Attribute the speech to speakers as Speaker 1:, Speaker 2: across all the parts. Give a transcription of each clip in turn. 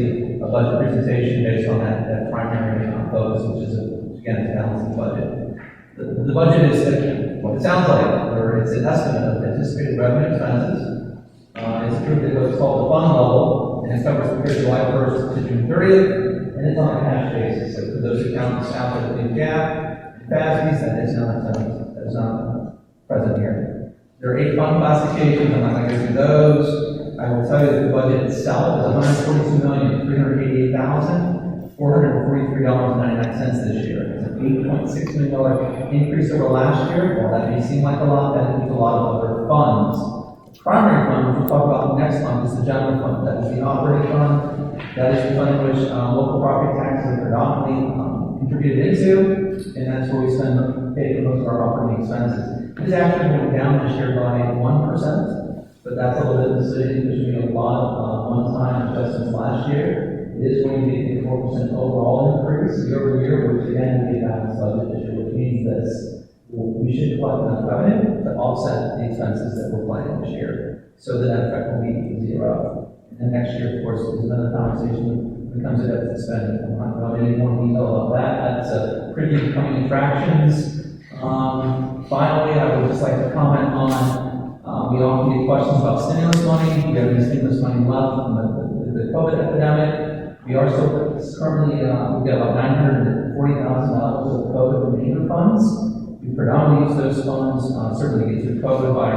Speaker 1: a budget presentation based on that, that primary uh, focus, which is, uh, again, to balance the budget. The, the budget is, uh, what it sounds like, or it's an estimate of anticipated revenue expenses. Uh, it's approved at what's called the fund level, and it covers the period July first to June thirtieth, and it's on a cash basis, so for those accounts out there in GAAP, FASB, that is not, that is not present here. There are eight fund classifications, I'm not gonna go through those. I will tell you that the budget itself is hundred forty-two million, three hundred eighty-eight thousand, four hundred forty-three dollars and ninety-nine cents this year. It's an eight point six million dollar increase over last year. While that may seem like a lot, that includes a lot of other funds. Primary fund, which we'll talk about next month, is the general fund, that is the operating fund. That is the fund which, uh, local property taxes are predominantly, um, contributed into, and that's where we spend, pay for most of our operating expenses. It's actually went down this year by one percent, but that's a little bit misleading, because we had a lot of, uh, one-time adjustments last year. It is going to be a four percent overall increase year over year, which again, we have a budget this year, which means that we should collect enough revenue to offset the expenses that we're planning this year, so the net effect will be zero. And then next year, of course, is another conversation when it comes to deficit spending. I'm not going into any more detail about that. That's a pretty incoming infractions. Um, finally, I would just like to comment on, uh, we often get questions about stimulus money. We have any stimulus money left from the, the- the COVID epidemic. We are still currently, uh, we've got about nine hundred and forty thousand dollars of COVID remaining funds. We predominantly use those funds, uh, certainly get through COVID by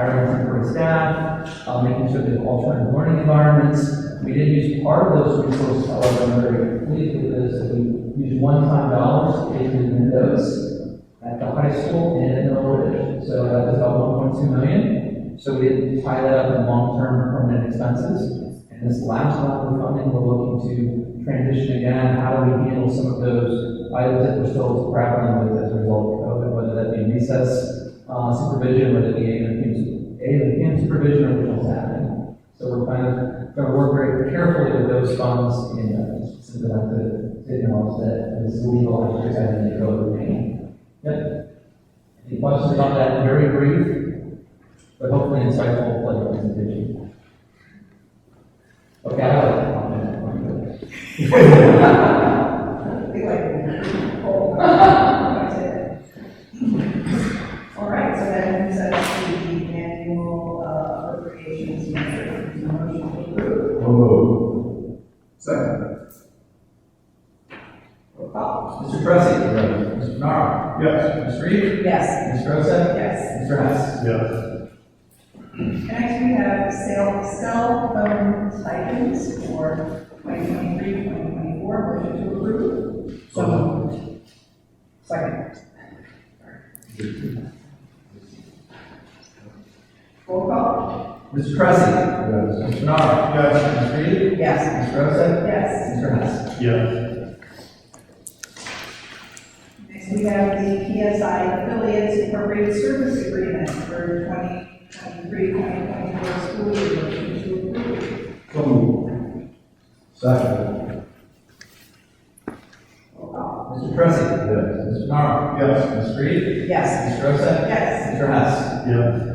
Speaker 1: hiring temporary staff, uh, making sure they have alternative learning environments. We did use part of those resources, however, I'm very pleased with this, that we used one-time dollars to pay for the windows at the high school and in Mill Ridge. So that was about one point two million. So we did tie that up in long-term permanent expenses. And this last round of funding, we're looking to transition again, how do we handle some of those items that we're still grappling with as a result of COVID, whether that be recess, uh, supervision, whether it be aid and PM, aid and PM supervision, or what's happening. So we're kind of, gonna work very carefully with those funds and, uh, so that the, you know, that this legal, I presented, go to paying. Yep. Any questions about that? Very brief, but hopefully insightful, like, presentation. Okay, I have a comment.
Speaker 2: All right, so that moves us to the annual uh, appropriations measure. Is there a motion to approve.
Speaker 3: Second.
Speaker 2: Roll call.
Speaker 1: Mr. Tressi. Mr. Nara.
Speaker 3: Yes.
Speaker 1: Ms. Reed.
Speaker 2: Yes.
Speaker 1: Ms. Rosa.
Speaker 2: Yes.
Speaker 1: Mr. Hess.
Speaker 3: Yes.
Speaker 2: Next, we have sale, cell phone stipends for 2023, 2024. Motion to approve.
Speaker 3: So moved.
Speaker 2: Second. Roll call.
Speaker 1: Mr. Tressi.
Speaker 3: Yes.
Speaker 1: Mr. Nara.
Speaker 3: Yes.
Speaker 1: Ms. Reed.
Speaker 2: Yes.
Speaker 1: Ms. Rosa.
Speaker 2: Yes.
Speaker 1: Mr. Hess.
Speaker 3: Yes.
Speaker 2: Next, we have the PSI affiliates appropriate service agreement for 2023, 2024 school year. Motion to approve.
Speaker 3: So moved. Second.
Speaker 2: Roll call.
Speaker 1: Mr. Tressi.
Speaker 3: Yes.
Speaker 1: Mr. Nara.
Speaker 3: Yes.
Speaker 1: Ms. Reed.
Speaker 2: Yes.
Speaker 1: Ms. Rosa.
Speaker 2: Yes.
Speaker 1: Mr. Hess.
Speaker 3: Yes.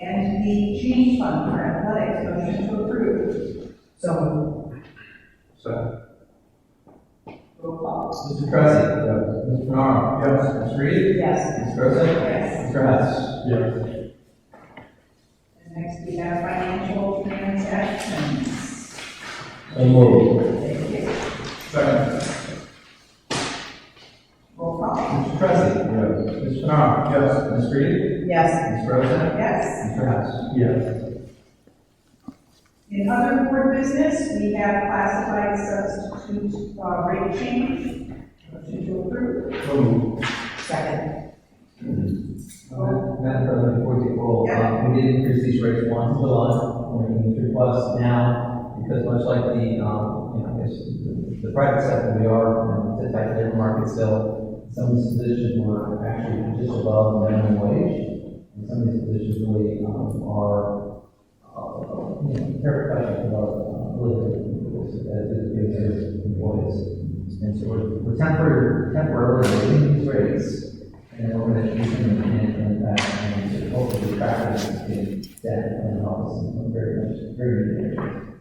Speaker 2: And the change fund for athletics. Motion to approve. So.
Speaker 3: Second.
Speaker 2: Roll call.
Speaker 1: Mr. Tressi.
Speaker 3: Yes.
Speaker 1: Mr. Nara.
Speaker 3: Yes.
Speaker 1: Ms. Reed.
Speaker 2: Yes.
Speaker 1: Ms. Rosa.
Speaker 2: Yes.
Speaker 1: Mr. Hess.
Speaker 3: Yes.
Speaker 2: And next, we have financial transactions.
Speaker 3: So moved.
Speaker 2: Thank you.
Speaker 3: Second.
Speaker 2: Roll call.
Speaker 1: Mr. Tressi.
Speaker 3: Yes.
Speaker 1: Mr. Nara.
Speaker 3: Yes.
Speaker 1: Ms. Reed.
Speaker 2: Yes.
Speaker 1: Ms. Rosa.
Speaker 2: Yes.
Speaker 1: Mr. Hess.
Speaker 3: Yes.
Speaker 2: In other board business, we have classified substitute uh, rate change. Motion to approve.
Speaker 3: So moved.
Speaker 2: Second.
Speaker 1: Uh, Madam President, before we take roll,
Speaker 2: Yeah.
Speaker 1: uh, we did increase these rates once in July, we're making these requests now, because much like the, um, you know, I guess, the- the private sector, we are, you know, it's a tight labor market still. Some of these positions were actually just above the minimum wage, and some of these positions really, um, are, uh, you know, they're questioning about, uh, really, as it is employees. And so we're, we're temporarily, temporarily raising these rates, and then we're going to use them in, in that, and hopefully practice in that, and obviously, very much, very good.